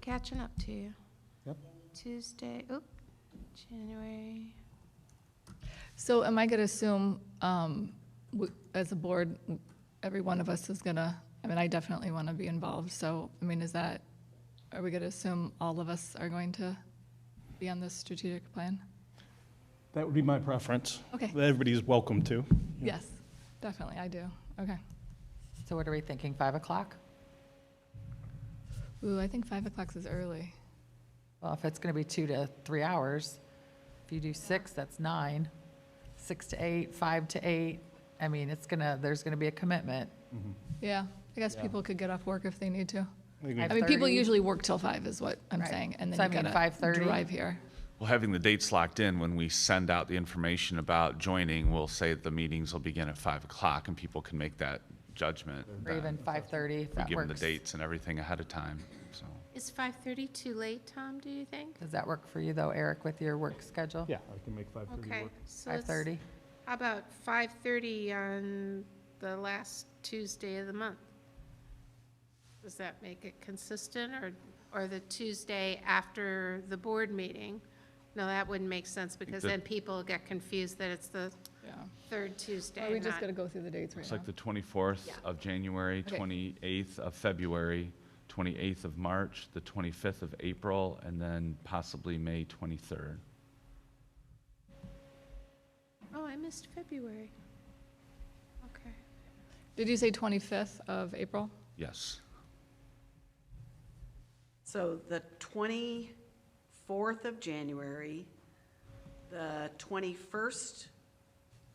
catching up to you. Yep. Tuesday, oop, January. So am I going to assume, um, w- as a board, w- every one of us is going to, I mean, I definitely want to be involved, so, I mean, is that, are we going to assume all of us are going to be on this strategic plan? That would be my preference. Okay, Everybody's welcome to. yes, definitely, I do, okay. So what are we thinking, 5 o'clock? Ooh, I think 5 o'clock is early. Well, if it's going to be two to three hours, if you do six, that's nine. Six to eight, five to eight, I mean, it's gonna, there's gonna be a commitment. Yeah, I guess Yeah. people could get off work if they need to. Five I mean, people thirty. usually work till 5 is what I'm Right. saying, and So I then mean, you gotta 5:30? drive here. Well, having the dates locked in, when we send out the information about joining, we'll say that the meetings will begin at five o'clock and people can make that judgment. Or even five thirty, if We that give them the works. dates and everything ahead of time, so. Is 5:30 too late, Tom, do you think? Does that work for you though, Eric, with your work schedule? Yeah, I can make 5:30 Okay. work. so Five let's- thirty? How about 5:30 on the last Tuesday of the month? Does that make it consistent, or, or the Tuesday after the board meeting? No, that wouldn't make sense, because that- then people get confused that it's the Yeah. third Tuesday, Are we just not- gonna go through the dates right It's now? like the twenty-fourth Yeah. of January, Okay. twenty-eighth of February, twenty-eighth of March, the twenty-fifth of April, and then possibly May twenty-third. Oh, I missed February. Okay. Did you say 25th of April? Yes. So the 24th of January, the 21st of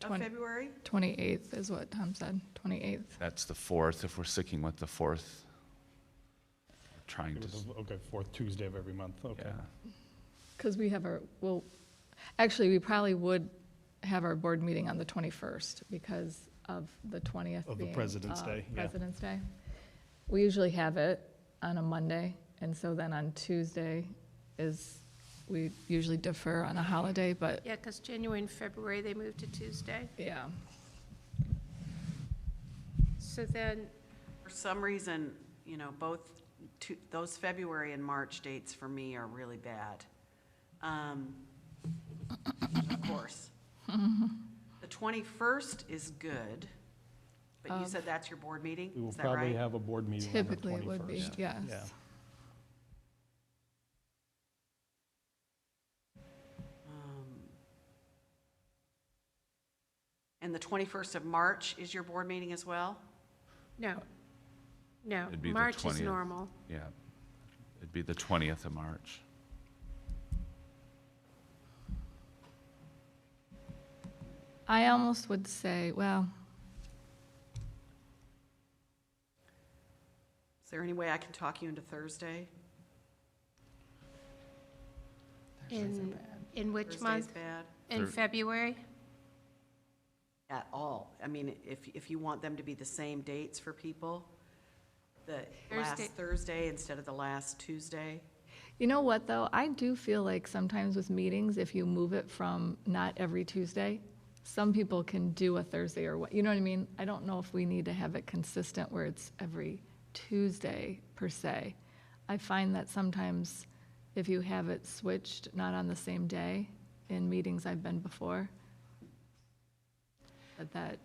Twen- February, 28th is what Tom said, 28th. That's the fourth, if we're sticking with the fourth. Trying to, s- Okay, fourth Tuesday of every month, okay. yeah. Because we have our, well, actually, we probably would have our board meeting on the 21st because of the 20th Of the being, President's uh, Day, yeah. President's Day. We usually have it on a Monday, and so then on Tuesday is, we usually defer on a holiday, but, Yeah, because January and February, they moved to Tuesday. yeah. So then, for some reason, you know, both, two- those February and March dates for me are really bad. Um, Of course. The 21st is good, but you said that's your board meeting? We will Is that probably right? have a board meeting on the 21st. Typically, it would be, yes. Yeah. Um, And the 21st of March is your board meeting as well? no, no, It'd be the March is 20th. normal. Yeah. It'd be the 20th of March. I almost would say, well, Is there any way I can talk you into Thursday? In, in which Thursday's month? bad? In Thir- February? At all. I mean, if, if you want them to be the same dates for people, the last Thursday. Thursday instead of the last Tuesday. You know what, though? I do feel like sometimes with meetings, if you move it from not every Tuesday, some people can do a Thursday or what, you know what I mean? I don't know if we need to have it consistent where it's every Tuesday per se. I find that sometimes if you have it switched, not on the same day, in meetings I've been before, that that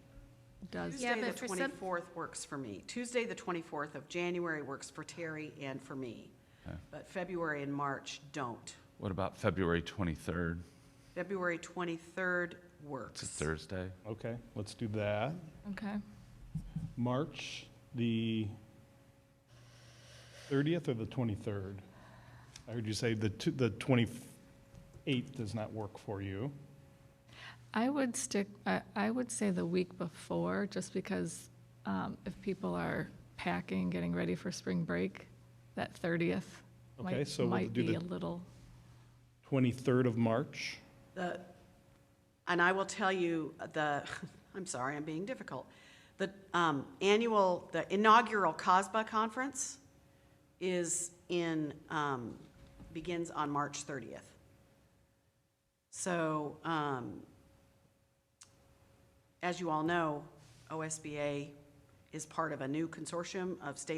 does, Tuesday, but the for some- 24th works for me. Tuesday, the 24th of January works for Terry and for me. But February and March don't. What about February 23rd? February 23rd It's a works. Thursday. Okay, let's do that. okay? March, the 30th or the 23rd? I heard you say the two- the 28th does not work for you. I would stick, I, I would say the week before, just because um, if people are packing, getting ready for spring break, that 30th Okay, might, so we'll might do be the- a little, 23rd of March? The, and I will tell you, the, I'm sorry, I'm being difficult. The um, annual, the inaugural COSBA conference is in, um, begins on March 30th. So, um, as you all know, OSBA is part of a new consortium of state